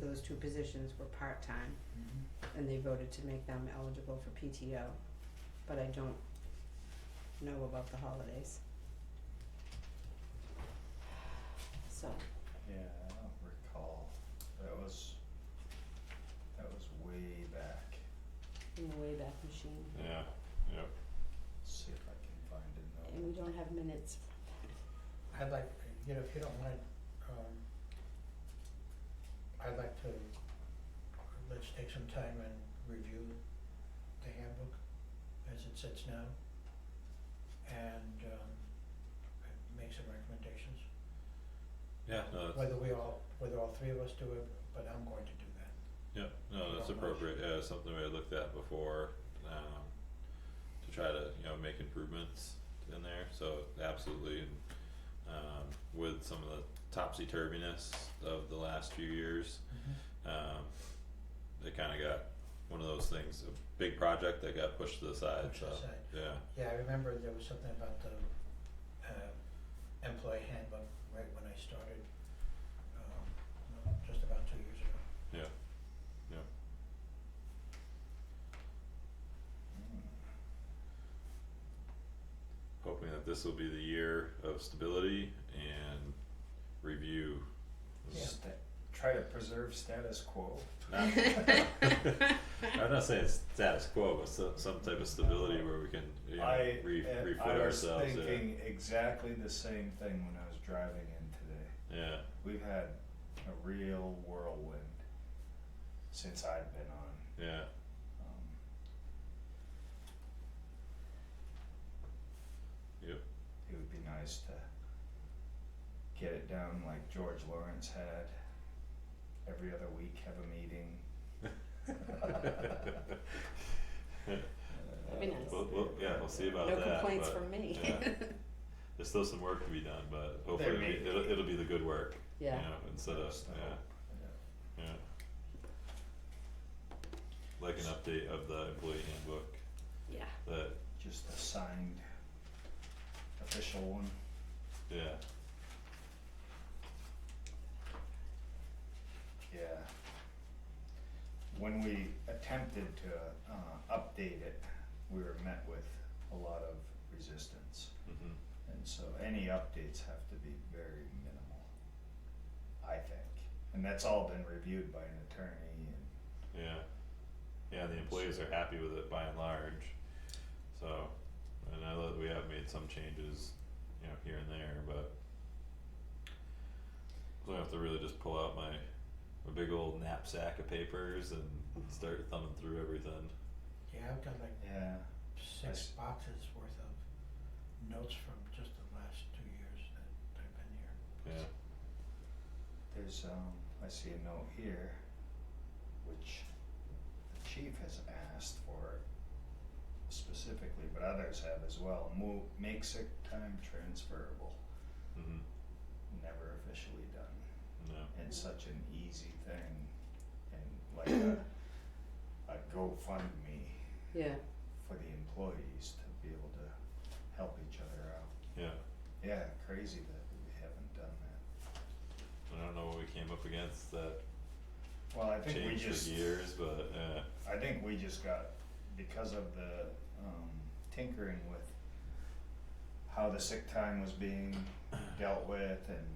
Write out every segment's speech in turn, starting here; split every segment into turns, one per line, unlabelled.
those two positions were part-time and they voted to make them eligible for PTO. But I don't know about the holidays. So,
Yeah, I don't recall. That was, that was way back.
in the Wayback Machine,
Yeah, yep.
Let's see if I can find a
and
note.
we don't have minutes.
I'd like, you know, if you don't mind, um, I'd like to, let's take some time and review the handbook as it sits now. And, um, and make some recommendations,
Yeah, no, that's,
whether we all, whether all three of us do it, but I'm going to do that.
yeah, no, that's
Not much.
appropriate, yeah, it's something we had looked at before, um, to try to, you know, make improvements in there, so absolutely. and, Um, with some of the topsy-turviness of the last few years, um, it kinda got one of those things, a big project that got pushed to the side,
Pushed
so,
aside.
yeah,
uh, Yeah, I remember there was something about the um employee handbook right when I started, um, no, just about two years ago.
yeah,
Hmm.
hoping that this will be the year of stability and review.
Hmm. Sta- Try to preserve status quo.
Not- I'm not saying it's status quo, but some some type of stability where we can, you know,
I,
re-
and
refit
I was
ourselves. yeah.
thinking exactly the same thing when I was driving in today.
Yeah,
We've had a real whirlwind since I've been on.
yeah,
Um,
yep,
it would be nice to get it down like George Lawrence had. Every other week, have a meeting.
That'd be nice.
We'll- we'll- yeah, we'll see about
No
that,
complaints
but,
from me.
yeah. there's still some work to be done, but hopefully it'll
may
be, it'll,
be.
it'll be the good work, you
Yeah.
know, instead of,
That's the
yeah,
hope. Yeah.
yeah. Like an update of the employee handbook
Yeah.
that,
Just a signed official one.
yeah,
Yeah. When we attempted to uh, update it, we were met with a lot of resistance.
mhm,
And so any updates have to be very minimal, I think. And that's all been reviewed by an attorney and
yeah. Yeah, the employees are happy with it by and large, so, and I know that we have made some changes, you know, here and there, but. So I have to really just pull out my, my big old knapsack of papers and start thumbing through everything,
Yeah, I've got like
yeah,
six
That's-
boxes worth of notes from just the last two years that I've been here.
yeah,
there's um I see a note here which the chief has asked for specifically, but others have as well. Move make sick time transferable.
mhm,
Never officially done.
no,
And such an easy thing and like a a GoFundMe
Yeah,
for the employees to be able to help each other out.
yeah,
Yeah, crazy that we haven't done that.
I don't know what we came up against that
Well, I think we
changed
just,
for years, but, uh, yeah,
I think we just got, because of the, um, tinkering with how the sick time was being dealt with and,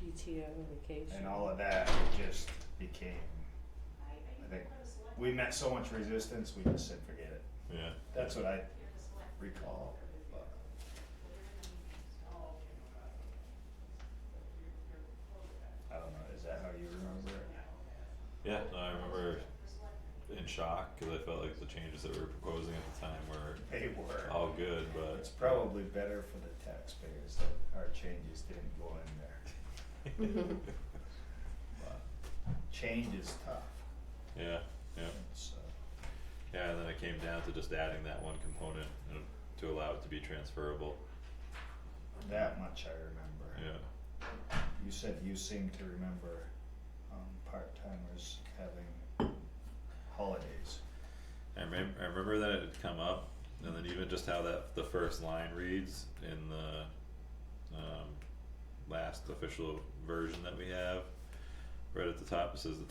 PTO, vacation.
and all of that, it just became, I think, we met so much resistance, we just said, forget it.
yeah.
That's what I recall, but. I don't know, is that how you remember it?
Yeah, no, I remember in shock, cause I felt like the changes that we were proposing at the time were
They were.
all good, but.
It's probably better for the taxpayers that our changes didn't go in there, but change is tough,
Yeah, yeah,
and so,
yeah, and then it came down to just adding that one component you know, to allow it to be transferable,
that much I remember.
yeah,
You said you seem to remember, um, part-timers having holidays.
I remem- I remember that it had come up, and then even just how that, the first line reads in the, um, last official version that we have. Right at the top, it says the